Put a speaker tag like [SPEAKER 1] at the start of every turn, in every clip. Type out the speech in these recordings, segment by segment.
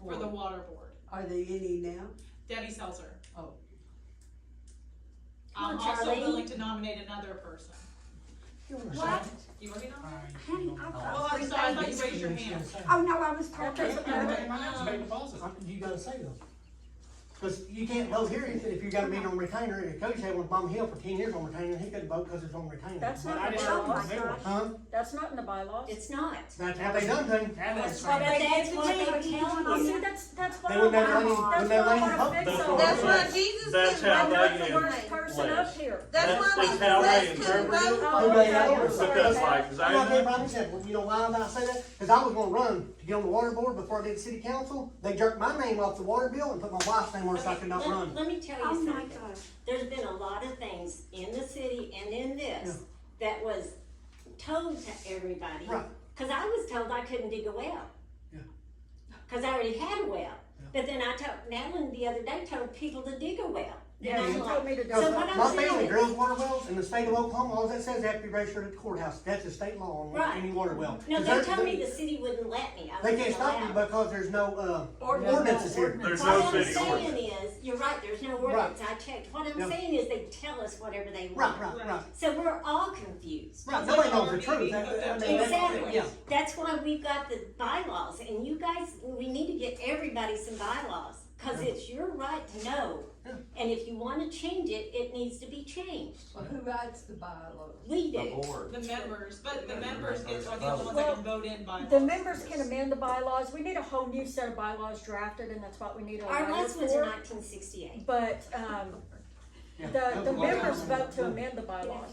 [SPEAKER 1] water board.
[SPEAKER 2] Are they any now?
[SPEAKER 1] Debbie Seltzer.
[SPEAKER 2] Oh.
[SPEAKER 1] I'm
[SPEAKER 3] Come on,
[SPEAKER 1] also
[SPEAKER 3] Charlene.
[SPEAKER 1] willing to nominate another person.
[SPEAKER 3] What?
[SPEAKER 1] You already
[SPEAKER 4] Uh,
[SPEAKER 1] nominated?
[SPEAKER 3] Honey, I've got
[SPEAKER 1] Well, Oh, I'm
[SPEAKER 3] three
[SPEAKER 1] sorry, I thought
[SPEAKER 3] babies.
[SPEAKER 1] you raised your hand.
[SPEAKER 3] Oh, no, I was talking
[SPEAKER 5] Okay,
[SPEAKER 3] to
[SPEAKER 5] I'm
[SPEAKER 3] her.
[SPEAKER 5] making my next paper policy.
[SPEAKER 4] You gotta say them. Cause you can't vote here if, if you got a meeting on retainer, and if Coach had one Bum Hill for ten years on retainer, he could vote because it's on retainer.
[SPEAKER 6] That's
[SPEAKER 5] But
[SPEAKER 6] not
[SPEAKER 5] I
[SPEAKER 6] in the
[SPEAKER 5] just don't
[SPEAKER 6] bylaws,
[SPEAKER 5] remember.
[SPEAKER 6] Josh.
[SPEAKER 4] Huh?
[SPEAKER 6] That's not in the bylaws.
[SPEAKER 3] It's not.
[SPEAKER 4] That's how they done things.
[SPEAKER 5] That is
[SPEAKER 3] But
[SPEAKER 5] right.
[SPEAKER 3] that's
[SPEAKER 6] It's
[SPEAKER 3] what
[SPEAKER 6] me.
[SPEAKER 3] they're
[SPEAKER 6] I
[SPEAKER 3] telling
[SPEAKER 6] see,
[SPEAKER 3] you.
[SPEAKER 6] that's, that's what
[SPEAKER 4] They
[SPEAKER 6] I
[SPEAKER 4] would
[SPEAKER 6] want,
[SPEAKER 4] never
[SPEAKER 6] that's
[SPEAKER 4] let you- would
[SPEAKER 6] what
[SPEAKER 4] never
[SPEAKER 6] I
[SPEAKER 4] let you
[SPEAKER 6] want to
[SPEAKER 4] vote.
[SPEAKER 6] fix
[SPEAKER 7] That's
[SPEAKER 6] on.
[SPEAKER 7] what-
[SPEAKER 8] That's why Jesus
[SPEAKER 7] That's
[SPEAKER 8] didn't
[SPEAKER 7] how
[SPEAKER 8] like
[SPEAKER 6] I'm not
[SPEAKER 8] us
[SPEAKER 6] the
[SPEAKER 8] to
[SPEAKER 7] they
[SPEAKER 8] work.
[SPEAKER 6] worst person
[SPEAKER 7] Flash.
[SPEAKER 6] up here.
[SPEAKER 8] That's
[SPEAKER 7] That's
[SPEAKER 8] why
[SPEAKER 7] just
[SPEAKER 8] Jesus
[SPEAKER 7] how they
[SPEAKER 8] couldn't
[SPEAKER 7] interpret it.
[SPEAKER 8] vote.
[SPEAKER 6] Oh,
[SPEAKER 4] Who made
[SPEAKER 6] okay,
[SPEAKER 4] that
[SPEAKER 6] I'm
[SPEAKER 4] order?
[SPEAKER 6] sorry
[SPEAKER 7] Because
[SPEAKER 6] about
[SPEAKER 7] like, 'cause
[SPEAKER 4] You know,
[SPEAKER 7] I,
[SPEAKER 4] everybody said, well, you know why did I say that? Cause I was gonna run to get on the water board before I did city council. They jerked my name off the water bill and put my wife's name on it so I could not
[SPEAKER 3] Let-
[SPEAKER 4] run.
[SPEAKER 3] Let me tell
[SPEAKER 6] Oh,
[SPEAKER 3] you
[SPEAKER 6] my
[SPEAKER 3] something. There's been a lot of things in the city and in this that was told to everybody.
[SPEAKER 4] Right.
[SPEAKER 3] Cause I was told I couldn't dig a well.
[SPEAKER 4] Yeah.
[SPEAKER 3] Cause I already had a well.
[SPEAKER 4] Yeah.
[SPEAKER 3] But then I told, Madeline the other day told people to dig a well.
[SPEAKER 6] Yeah,
[SPEAKER 3] And
[SPEAKER 6] she
[SPEAKER 3] I'm like,
[SPEAKER 6] told me to do
[SPEAKER 3] So what
[SPEAKER 6] it.
[SPEAKER 3] I'm
[SPEAKER 4] My
[SPEAKER 3] saying
[SPEAKER 4] family
[SPEAKER 3] is-
[SPEAKER 4] drills water wells in the state of Oklahoma, all that says they have to be registered at the courthouse, that's a state law on
[SPEAKER 3] Right.
[SPEAKER 4] any water well.
[SPEAKER 3] No, they
[SPEAKER 4] Because
[SPEAKER 3] told me
[SPEAKER 4] they-
[SPEAKER 3] the city wouldn't let me. I
[SPEAKER 4] They can't
[SPEAKER 3] wasn't
[SPEAKER 4] stop you
[SPEAKER 3] allowed.
[SPEAKER 4] because there's no, uh,
[SPEAKER 6] Ordinance.
[SPEAKER 4] ordinances here.
[SPEAKER 6] Ordinance.
[SPEAKER 7] there's no
[SPEAKER 3] What I'm
[SPEAKER 7] city ordinance.
[SPEAKER 3] saying is, you're right, there's no ordinance, I checked, what
[SPEAKER 4] Yeah.
[SPEAKER 3] I'm saying is they tell us whatever they
[SPEAKER 4] Right,
[SPEAKER 3] want.
[SPEAKER 4] right, right,
[SPEAKER 3] So we're all confused.
[SPEAKER 4] right, nobody knows the truth.
[SPEAKER 1] Right.
[SPEAKER 4] I mean, that's-
[SPEAKER 3] Exactly,
[SPEAKER 4] Yeah,
[SPEAKER 3] that's why we've got the bylaws, and you guys, we need to get everybody some bylaws, cause
[SPEAKER 4] Yeah.
[SPEAKER 3] it's your right to know.
[SPEAKER 4] Yeah.
[SPEAKER 3] And if you wanna change it, it needs to be changed,
[SPEAKER 2] Well, who writes the bylaws?
[SPEAKER 3] we
[SPEAKER 9] the
[SPEAKER 3] do.
[SPEAKER 9] board.
[SPEAKER 1] The members, but the members get, are the only ones
[SPEAKER 6] Well,
[SPEAKER 1] that can vote in by.
[SPEAKER 6] The members can amend the bylaws, we need a whole new set of bylaws drafted, and that's what we need a
[SPEAKER 3] Our
[SPEAKER 6] lawyer
[SPEAKER 3] last one's in
[SPEAKER 6] for.
[SPEAKER 3] nineteen sixty-eight.
[SPEAKER 6] But, um,
[SPEAKER 4] yeah.
[SPEAKER 6] the, the
[SPEAKER 4] That's what I'm
[SPEAKER 6] members
[SPEAKER 4] saying.
[SPEAKER 6] vote to amend the bylaws.
[SPEAKER 4] Let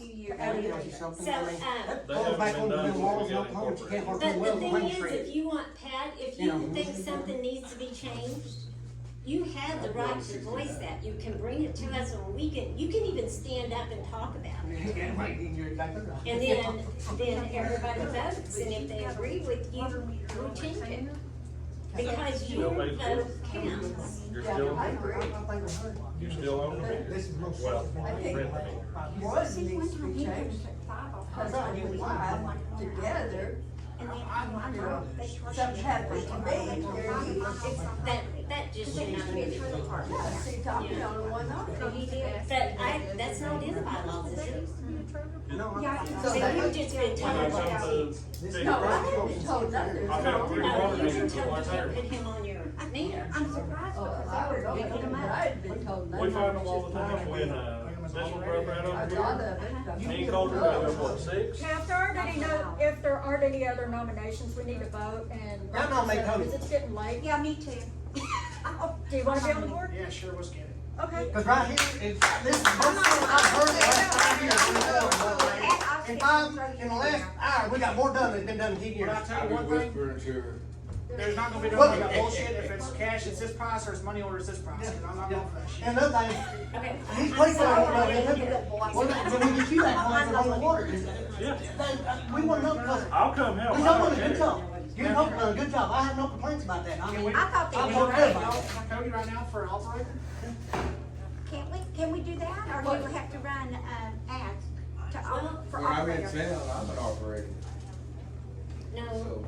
[SPEAKER 4] me tell you something, I mean,
[SPEAKER 3] So, um,
[SPEAKER 4] that
[SPEAKER 7] They
[SPEAKER 4] falls
[SPEAKER 7] haven't
[SPEAKER 4] back
[SPEAKER 7] been
[SPEAKER 4] on the
[SPEAKER 7] done
[SPEAKER 4] new
[SPEAKER 7] since we
[SPEAKER 4] laws in
[SPEAKER 7] got
[SPEAKER 4] Oklahoma. You can't work
[SPEAKER 3] But
[SPEAKER 4] on
[SPEAKER 3] the
[SPEAKER 4] wells on Main
[SPEAKER 3] thing is,
[SPEAKER 4] Street.
[SPEAKER 3] if you want, Pat, if
[SPEAKER 4] You know,
[SPEAKER 3] you think
[SPEAKER 4] who's-
[SPEAKER 3] something needs to be changed, you have the right to voice that, you can bring it to us on weekend, you can even stand up and talk about it.
[SPEAKER 4] Yeah, right, you're exactly right.
[SPEAKER 3] And then, then everybody votes, and if they agree with you, you change it, because your
[SPEAKER 7] Nobody's
[SPEAKER 3] vote
[SPEAKER 7] voting.
[SPEAKER 3] counts.
[SPEAKER 7] You're
[SPEAKER 2] Yeah,
[SPEAKER 7] still,
[SPEAKER 2] I
[SPEAKER 4] agree. I think
[SPEAKER 7] you're still on the meter.
[SPEAKER 4] This is most.
[SPEAKER 7] Well,
[SPEAKER 2] I think-
[SPEAKER 7] Brittany.
[SPEAKER 2] One needs to be changed, cause I and why, together, something happened to me, oh, there's,
[SPEAKER 3] That, that just should not be the rule.
[SPEAKER 2] she talked me on one arm.
[SPEAKER 3] But I, that's not in the bylaws, is it?
[SPEAKER 4] No, I'm-
[SPEAKER 2] So
[SPEAKER 3] So
[SPEAKER 2] that-
[SPEAKER 3] you've just been
[SPEAKER 7] When
[SPEAKER 3] told
[SPEAKER 7] I come
[SPEAKER 3] about
[SPEAKER 7] to
[SPEAKER 4] this
[SPEAKER 7] figure
[SPEAKER 2] No, I
[SPEAKER 7] out-
[SPEAKER 2] haven't told nothing.
[SPEAKER 7] I found three water
[SPEAKER 3] No, you've been
[SPEAKER 7] meters in
[SPEAKER 3] told
[SPEAKER 7] one
[SPEAKER 3] Oh, you can't
[SPEAKER 7] area.
[SPEAKER 3] put him on your meter.
[SPEAKER 5] I'm surprised
[SPEAKER 2] Oh, I was only, I had been told nothing.
[SPEAKER 7] We find them all the time when, uh, this one broke right
[SPEAKER 2] A
[SPEAKER 7] over
[SPEAKER 2] lot
[SPEAKER 7] here.
[SPEAKER 2] of it. but-
[SPEAKER 7] Me and Colter got there, what, six?
[SPEAKER 6] Now, if there aren't any, no- if there aren't any other nominations, we need to vote and.
[SPEAKER 4] No, no, make
[SPEAKER 6] Because
[SPEAKER 4] vote.
[SPEAKER 6] it's getting late.
[SPEAKER 5] Yeah, me too.
[SPEAKER 6] Do you wanna be on the board?
[SPEAKER 5] Yeah, sure, let's get it.
[SPEAKER 6] Okay.
[SPEAKER 4] Cause right here, it's, this, is- I've heard it last five years, we done, in five, in the last hour, we got more done than been done in ten
[SPEAKER 5] But
[SPEAKER 4] years.
[SPEAKER 5] I tell you one thing, there's not gonna be no
[SPEAKER 4] What?
[SPEAKER 5] like bullshit, if it's cash, it's this price, or it's money order, it's this price, and I'm not going for that shit.
[SPEAKER 4] And another thing,
[SPEAKER 3] Okay.
[SPEAKER 4] these
[SPEAKER 3] I'm
[SPEAKER 4] people
[SPEAKER 3] sorry,
[SPEAKER 4] don't know,
[SPEAKER 3] I
[SPEAKER 4] they
[SPEAKER 3] didn't
[SPEAKER 4] look
[SPEAKER 3] hear
[SPEAKER 4] at
[SPEAKER 3] it.
[SPEAKER 4] that, well, when we get you that one, on the water, is it?
[SPEAKER 7] Yeah,
[SPEAKER 4] we wanna know, cause
[SPEAKER 7] I'll come help.
[SPEAKER 4] We
[SPEAKER 7] I
[SPEAKER 4] done
[SPEAKER 7] don't
[SPEAKER 4] done a good
[SPEAKER 7] care.
[SPEAKER 4] job. You have done a uh, good job. I have no complaints about that. I
[SPEAKER 5] Can
[SPEAKER 4] mean,
[SPEAKER 5] we-
[SPEAKER 4] I
[SPEAKER 5] Can we
[SPEAKER 4] feel
[SPEAKER 5] vote
[SPEAKER 4] good about
[SPEAKER 5] y'all
[SPEAKER 4] it.
[SPEAKER 5] for Cody right now for an operator?
[SPEAKER 10] Can't we, can we do that, or do we have to run, um, ads to, all- for all players?
[SPEAKER 9] I'm an operator.
[SPEAKER 3] No,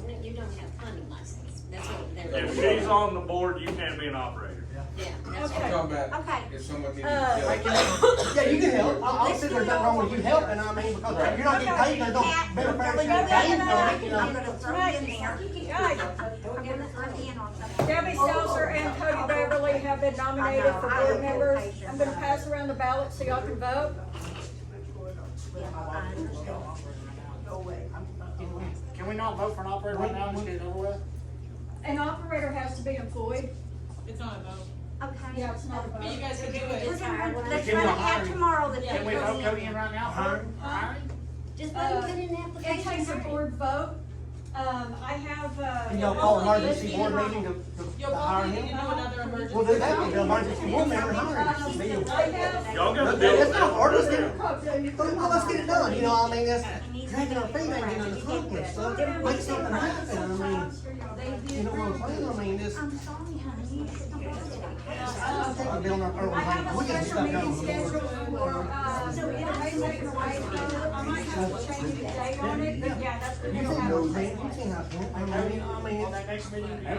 [SPEAKER 3] no, you don't have hunting license, that's what they're.
[SPEAKER 7] If she's on the board, you can't be an operator.
[SPEAKER 3] Yeah, that's
[SPEAKER 6] Okay.
[SPEAKER 9] about
[SPEAKER 10] Okay,
[SPEAKER 9] if someone needs
[SPEAKER 6] Uh,
[SPEAKER 4] Yeah, you can help. I, I'll sit there, nothing wrong with you helping. I mean, because you're not getting paid, there's no benefit.
[SPEAKER 10] Cat,
[SPEAKER 4] you're paying for it, you know.
[SPEAKER 10] I'm gonna throw
[SPEAKER 6] Right.
[SPEAKER 10] in there,
[SPEAKER 6] Right.
[SPEAKER 10] I'm gonna throw in on something.
[SPEAKER 6] Debbie Seltzer and Cody Beverly have been nominated for board members. I'm gonna pass around the ballot so y'all can vote.
[SPEAKER 10] Yeah, I understand.
[SPEAKER 2] Go away.
[SPEAKER 5] Can we not vote for an operator right now, and just get it over with?
[SPEAKER 6] An operator has to be employed.
[SPEAKER 1] It's not a vote,
[SPEAKER 10] Okay.
[SPEAKER 6] Yeah, it's not a
[SPEAKER 1] but you
[SPEAKER 6] vote.
[SPEAKER 1] guys can do
[SPEAKER 10] We're
[SPEAKER 1] it.
[SPEAKER 10] gonna run, let's
[SPEAKER 4] Give me
[SPEAKER 10] run
[SPEAKER 4] a
[SPEAKER 10] an ad
[SPEAKER 4] hiring.
[SPEAKER 10] tomorrow that
[SPEAKER 5] Can we
[SPEAKER 10] they go
[SPEAKER 5] vote
[SPEAKER 10] in.
[SPEAKER 5] Cody in right now for hiring?
[SPEAKER 3] Just let them put in an
[SPEAKER 6] It takes a
[SPEAKER 3] application.
[SPEAKER 6] board vote. Um, I have,
[SPEAKER 4] And
[SPEAKER 6] uh,
[SPEAKER 4] y'all call an emergency board meeting to, to-
[SPEAKER 1] You'll
[SPEAKER 4] to hire
[SPEAKER 1] probably need to do
[SPEAKER 4] him.
[SPEAKER 1] another
[SPEAKER 4] Well, then
[SPEAKER 1] emergency.
[SPEAKER 4] that would be an emergency board member hiring. Be it.
[SPEAKER 6] I have,
[SPEAKER 7] Y'all got to deal
[SPEAKER 4] That's
[SPEAKER 7] with
[SPEAKER 4] not hard. Let's get it,
[SPEAKER 7] that.
[SPEAKER 4] well, let's get it done. You know, I mean, that's dragging our feet and getting on the conflict stuff. Make something happen. I mean, you know what I'm saying? I mean, this,
[SPEAKER 10] I'm sorry, honey, you just don't
[SPEAKER 4] I think we're building our
[SPEAKER 6] I
[SPEAKER 4] program.
[SPEAKER 6] have
[SPEAKER 4] We
[SPEAKER 6] a
[SPEAKER 4] get
[SPEAKER 6] special
[SPEAKER 4] stuff
[SPEAKER 6] meeting
[SPEAKER 4] done.
[SPEAKER 6] scheduled for, uh, the Mason I might have to change the date on it, but yeah, that's.
[SPEAKER 4] You
[SPEAKER 6] the
[SPEAKER 4] don't know, man. You can't have, I mean, I mean,
[SPEAKER 5] On that next meeting?